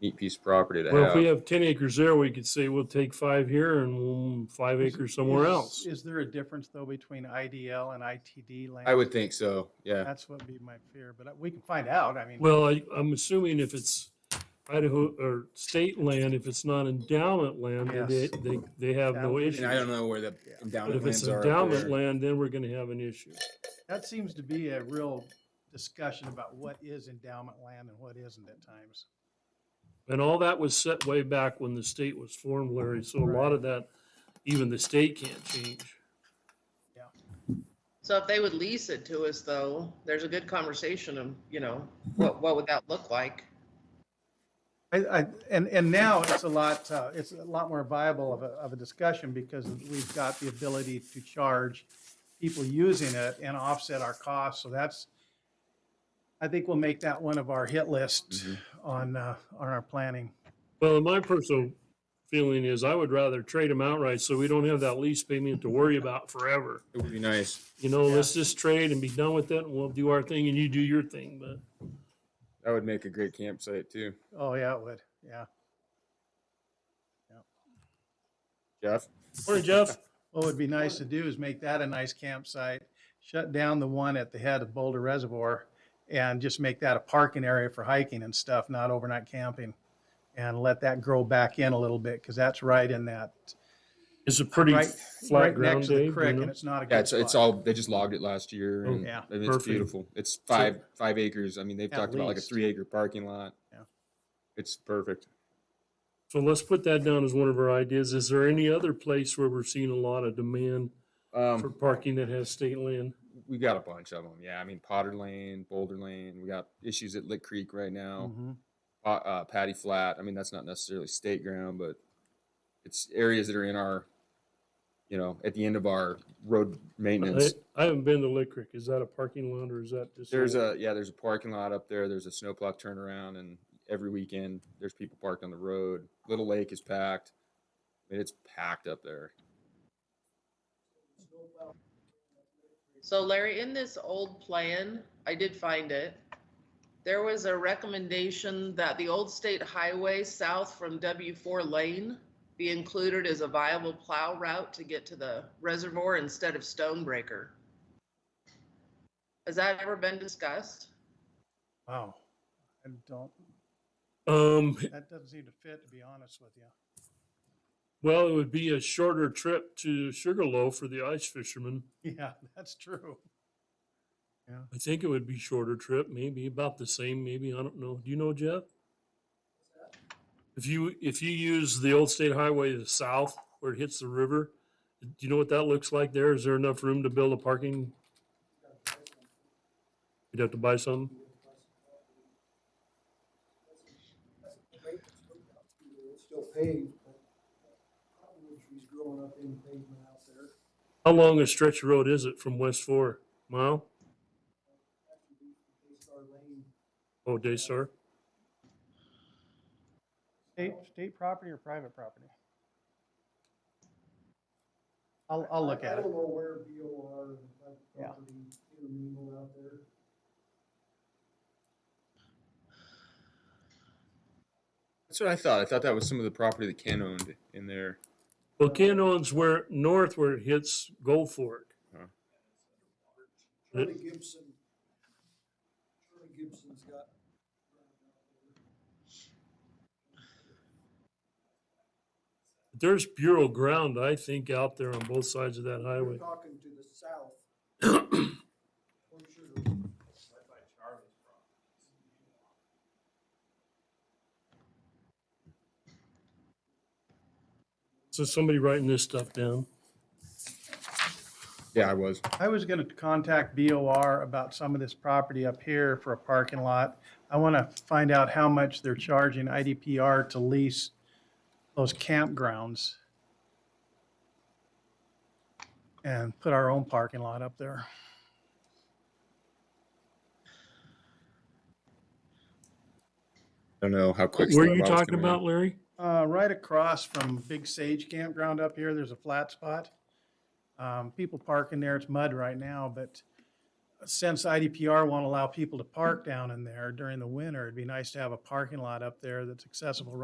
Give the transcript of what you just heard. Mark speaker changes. Speaker 1: neat piece of property to
Speaker 2: Well, if we
Speaker 1: have.
Speaker 2: have ten acres there, we could say we'll take five here and we'll- five acres somewhere
Speaker 3: Is-
Speaker 2: else.
Speaker 3: Is there a difference though between IDL and ITD land?
Speaker 1: I would think so, yeah.
Speaker 3: That's what would be my fear, but uh, we can find out. I mean,
Speaker 2: Well, I, I'm assuming if it's Idaho or state land, if it's not endowment land, then they,
Speaker 3: Yes.
Speaker 2: they, they have no
Speaker 3: Endowment.
Speaker 2: issue.
Speaker 1: And I don't know where the
Speaker 3: Yeah.
Speaker 2: But
Speaker 1: endowment
Speaker 2: if it's
Speaker 1: lands are. up
Speaker 2: endowment
Speaker 1: there.
Speaker 2: land, then we're gonna have an issue.
Speaker 3: that seems to be a real discussion about what is endowment land and what isn't at times.
Speaker 2: And all that was set way back when the state was formed, Larry, so a lot of that, even the state can't change.
Speaker 4: So if they would lease it to us though, there's a good conversation of, you know, what, what would that look like?
Speaker 3: I, I, and, and now it's a lot, uh, it's a lot more viable of a, of a discussion because we've got the ability to charge people using it and offset our costs. So that's, I think we'll make that one of our hit list
Speaker 1: Mhm.
Speaker 3: on, uh, on our planning.
Speaker 2: Well, my personal feeling is I would rather trade them outright so we don't have that lease payment to worry about forever.
Speaker 1: It would be nice.
Speaker 2: You know, let's just trade and be done with it and we'll do our thing and you do your thing, but.
Speaker 1: That would make a great campsite too.
Speaker 3: Oh, yeah, it would. Yeah.
Speaker 1: Jeff?
Speaker 2: Morning, Jeff.
Speaker 3: What would be nice to do is make that a nice campsite, shut down the one at the head of Boulder Reservoir and just make that a parking area for hiking and stuff, not overnight camping. And let that grow back in a little bit because that's right in that,
Speaker 2: It's a pretty
Speaker 3: right,
Speaker 2: flat
Speaker 3: right
Speaker 2: ground
Speaker 3: next to
Speaker 2: day.
Speaker 3: the
Speaker 2: you
Speaker 3: creek
Speaker 2: know?
Speaker 3: and it's not a
Speaker 1: Yeah,
Speaker 3: good
Speaker 1: it's, it's
Speaker 3: spot.
Speaker 1: all, they just logged it last year
Speaker 2: Oh,
Speaker 1: and
Speaker 3: yeah.
Speaker 1: and it's
Speaker 2: Perfect.
Speaker 1: beautiful. It's five, five acres. I mean, they've
Speaker 3: At
Speaker 1: talked about like a
Speaker 3: least.
Speaker 1: three acre parking lot.
Speaker 3: Yeah.
Speaker 1: It's perfect.
Speaker 2: So let's put that down as one of our ideas. Is there any other place where we're seeing a lot of demand for
Speaker 1: Um,
Speaker 2: parking that has state land?
Speaker 1: we've got a bunch of them. Yeah, I mean Potter Lane, Boulder Lane. We got issues at Lick Creek right
Speaker 2: Mm-hmm.
Speaker 1: now.
Speaker 3: Mhm.
Speaker 1: Pa- Uh, Patty Flat. I mean, that's not necessarily state ground, but it's areas that are in our, you know, at the end of our road
Speaker 2: I,
Speaker 1: maintenance.
Speaker 2: I haven't been to Lick Creek. Is that a parking lot or is that just?
Speaker 1: There's a yeah, there's a parking lot up there. There's a snowplow turnaround, and every weekend there's people parked on the road. Little Lake is packed. I mean, it's packed up there.
Speaker 4: So Larry, in this old plan, I did find it. There was a recommendation that the old state highway south from W four lane be included as a viable plow route to get to the reservoir instead of Stonebreaker. Has that ever been discussed?
Speaker 3: Wow. I don't,
Speaker 2: Um,
Speaker 3: that doesn't seem to fit, to be honest with you.
Speaker 2: well, it would be a shorter trip to Sugarloaf for the ice fishermen.
Speaker 3: Yeah, that's true.
Speaker 2: I think it would be shorter trip, maybe about the same, maybe, I don't know. Do you know, Jeff? If you, if you use the old state highway to the south where it hits the river, do you know what that looks like there? Is there enough room to build a parking? You'd have to buy some?
Speaker 5: It's still paved, but cottonwood trees growing up in pavement out there.
Speaker 2: How long a stretch of road is it from West Four? Mile?
Speaker 5: After we, they start laying
Speaker 2: Oh, Daystar?
Speaker 3: State, state property or private property? I'll, I'll look
Speaker 5: I-
Speaker 3: at
Speaker 5: I
Speaker 3: it.
Speaker 5: don't know where BOR, and private
Speaker 3: Yeah.
Speaker 5: property intermingle out there.
Speaker 1: That's what I thought. I thought that was some of the property that Ken owned in there.
Speaker 2: Well, Canyon's where, north where it hits Gold Fork. It-
Speaker 5: Charlie Gibson, Charlie Gibson's got.
Speaker 2: There's bureau ground, I think, out there on both sides of that
Speaker 5: We're
Speaker 2: highway.
Speaker 5: talking to the south. Or should we-
Speaker 2: So somebody writing this stuff down.
Speaker 1: Yeah, I was.
Speaker 3: I was gonna contact BOR about some of this property up here for a parking lot. I wanna find out how much they're charging IDPR to lease those campgrounds. And put our own parking lot up there.
Speaker 1: I don't know how quick.
Speaker 2: Where are
Speaker 1: Steve
Speaker 2: you
Speaker 1: Bob's
Speaker 2: talking
Speaker 1: coming in.
Speaker 2: about, Larry?
Speaker 3: Uh, right across from Big Sage Campground up here, there's a flat spot. Um, people park in there, it's mud right now, but since IDPR won't allow people to park down in there during the winter, it'd be nice to have a parking lot up there that's accessible